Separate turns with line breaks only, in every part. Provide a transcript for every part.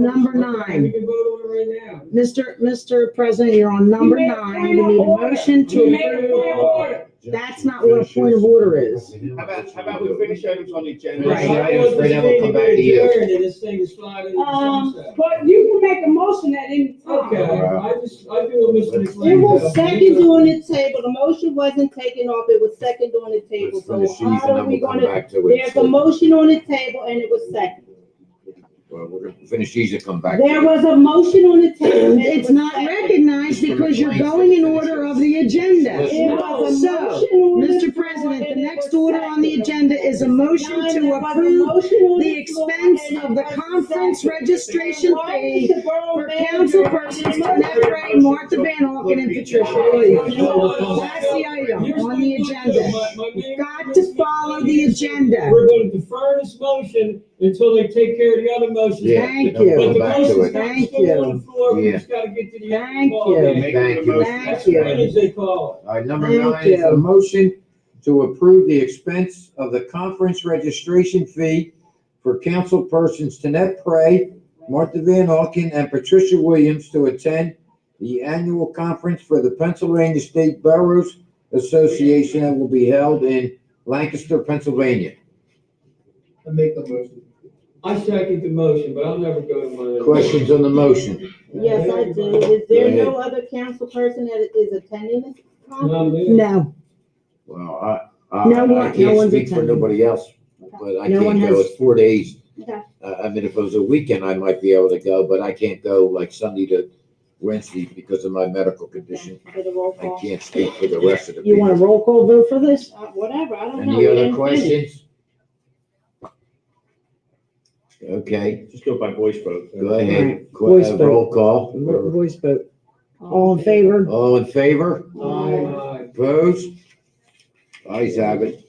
Number
We
nine,
can vote on it right now.
Mr. Mr. President, you're on number
You made a
nine.
point
You
of
need a
order.
motion
You
to,
made a point of order.
that's not what a point of order is.
How about, how about we finish items on the agenda?
Right.
Some items, then we'll come back to you.
Adjourned, and this thing is sliding into
Um,
sunset.
but you can make a motion at any
Okay,
time.
I just, I do what Mr.
It
McLean
was
does.
second on the table, the motion wasn't taken off, it was second on the table,
Let's
so
finish these and
how are
then
we
we'll come
gonna?
back to
There's
it.
a motion on the table and it was second.
Well, we're gonna finish these and come back. to
There
it.
was a motion on the table. and it
It's
was
not
second.
recognized because you're going in order of the agenda.
It was a
So,
motion on the
Mr.
floor
President, the
and it
next
was
order on the
second.
agenda is a
No,
motion
there
to
was a
approve
motion on
the
the floor
expense
and it
of the
was
conference
second.
registration
Why is
fee
the borough
for
manager-
council persons Lynette Ray, Martha Van Auken, and Patricia Williams. That's the item
Here's what
on the
we're gonna do.
agenda.
My- my man-
You've got to follow the agenda.
We're gonna defer this motion until they take care of the other motions.
Yeah,
Thank
then we'll
But
you.
the
Come back to
motion's got
it.
Thank
to still on the floor, we
you.
just gotta get to the.
Thank
ball
you.
game.
Thank you.
Thank you.
What is they call?
All right, number
Thank
nine is
you.
a motion to approve the expense of the conference registration fee for council persons Tanet Prey, Martha Van Auken, and Patricia Williams to attend the annual conference for the Pennsylvania State Boroughs Association that will be held in Lancaster, Pennsylvania.
I make the motion.
I second the motion, but I'll never go to my.
Questions on the motion?
Yes, I do. Is there no other council person that is attending this conference?
No, man.
No,
Well, I, I,
No one-
I
no
can't
one's
speak for
attending.
nobody else, but I
No one
can't go.
has-
It's four days.
Okay.
Uh, I mean, if it was a weekend, I might be able to go, but I can't go like Sunday to Wednesday because of my medical condition.
For the roll
I
call.
can't speak for the rest of the
you want a
people.
roll call vote for this?
Uh, Whatever, I don't know.
Any
We
other
didn't finish.
questions? Okay,
Just go by voice vote.
go ahead. Qu-
Voice
uh,
vote.
Roll call.
Voice vote. All in favor?
All in favor?
Um,
Aye.
Opposed? Ayes have it.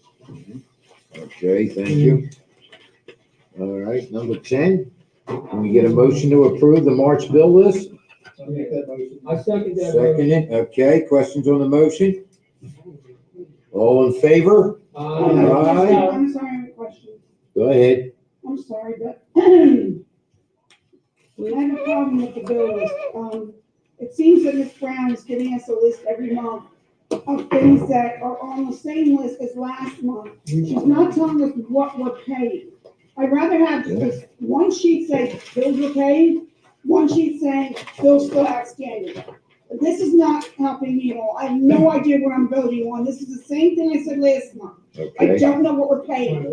Okay, thank you. All right, number ten, can we get a motion to approve the March bill list?
I make that motion.
I second that motion.
Seconded, okay, questions on the motion? All in favor?
Aye.
Aye.
I'm sorry, I have a question.
Go ahead.
I'm sorry, but we have a problem with the bill list. Um, it seems that Ms. Brown is giving us a list every month of things that are on the same list as last month. She's not telling us what we're paying. I'd rather have just one sheet saying bills were paid, one sheet saying bills still outstanding. This is not helping me at all. I have no idea what I'm voting on. This is the same thing I said last month. I
Okay,
don't know what we're paying.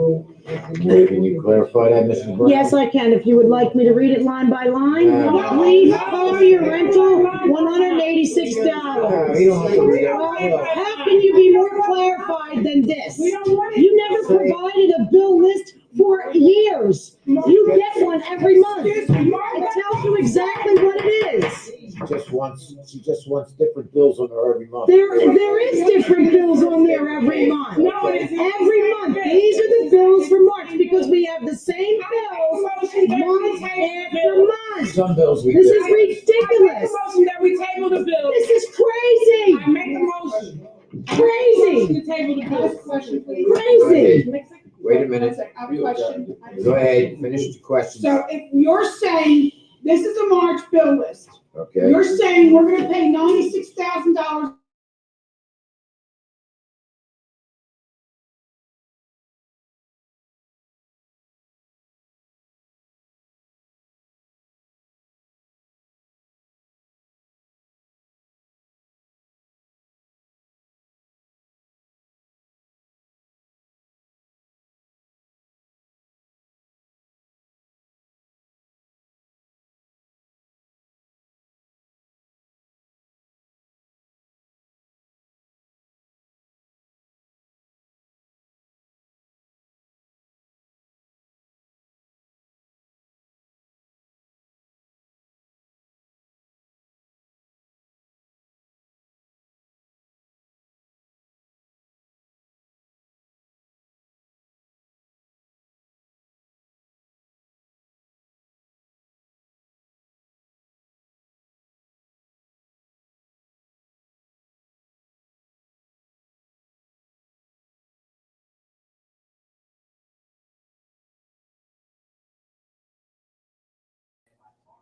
can you clarify that, Mrs. Brown?
Yes, I can, if you would like me to read it line by line.
Uh,
Leave for your rental, one hundred and eighty-six
Uh,
dollars.
you don't have to read that.
How can you be more clarified than this?
We don't want it.
You never provided a bill list for years. You get one every month.
Excuse me,
It
Margaret.
tells you exactly what it is.
She just wants, she just wants different bills on her every month.
There, there is different bills on there every month.
No, it isn't.
Every month, these are the bills for March because we have the same bills
I make a motion that we
month after
table.
month.
Some bills we
This is
do.
I make
ridiculous.
a motion that we table the bill.
This is crazy,
I make a motion.
crazy,
To table the bill. Question, please.
crazy.
Wait a minute.
I have a question. I have a
Go
question.
ahead, finish the questions.
So if you're saying, this is a March bill list,
Okay,
you're saying we're gonna pay ninety-six thousand dollars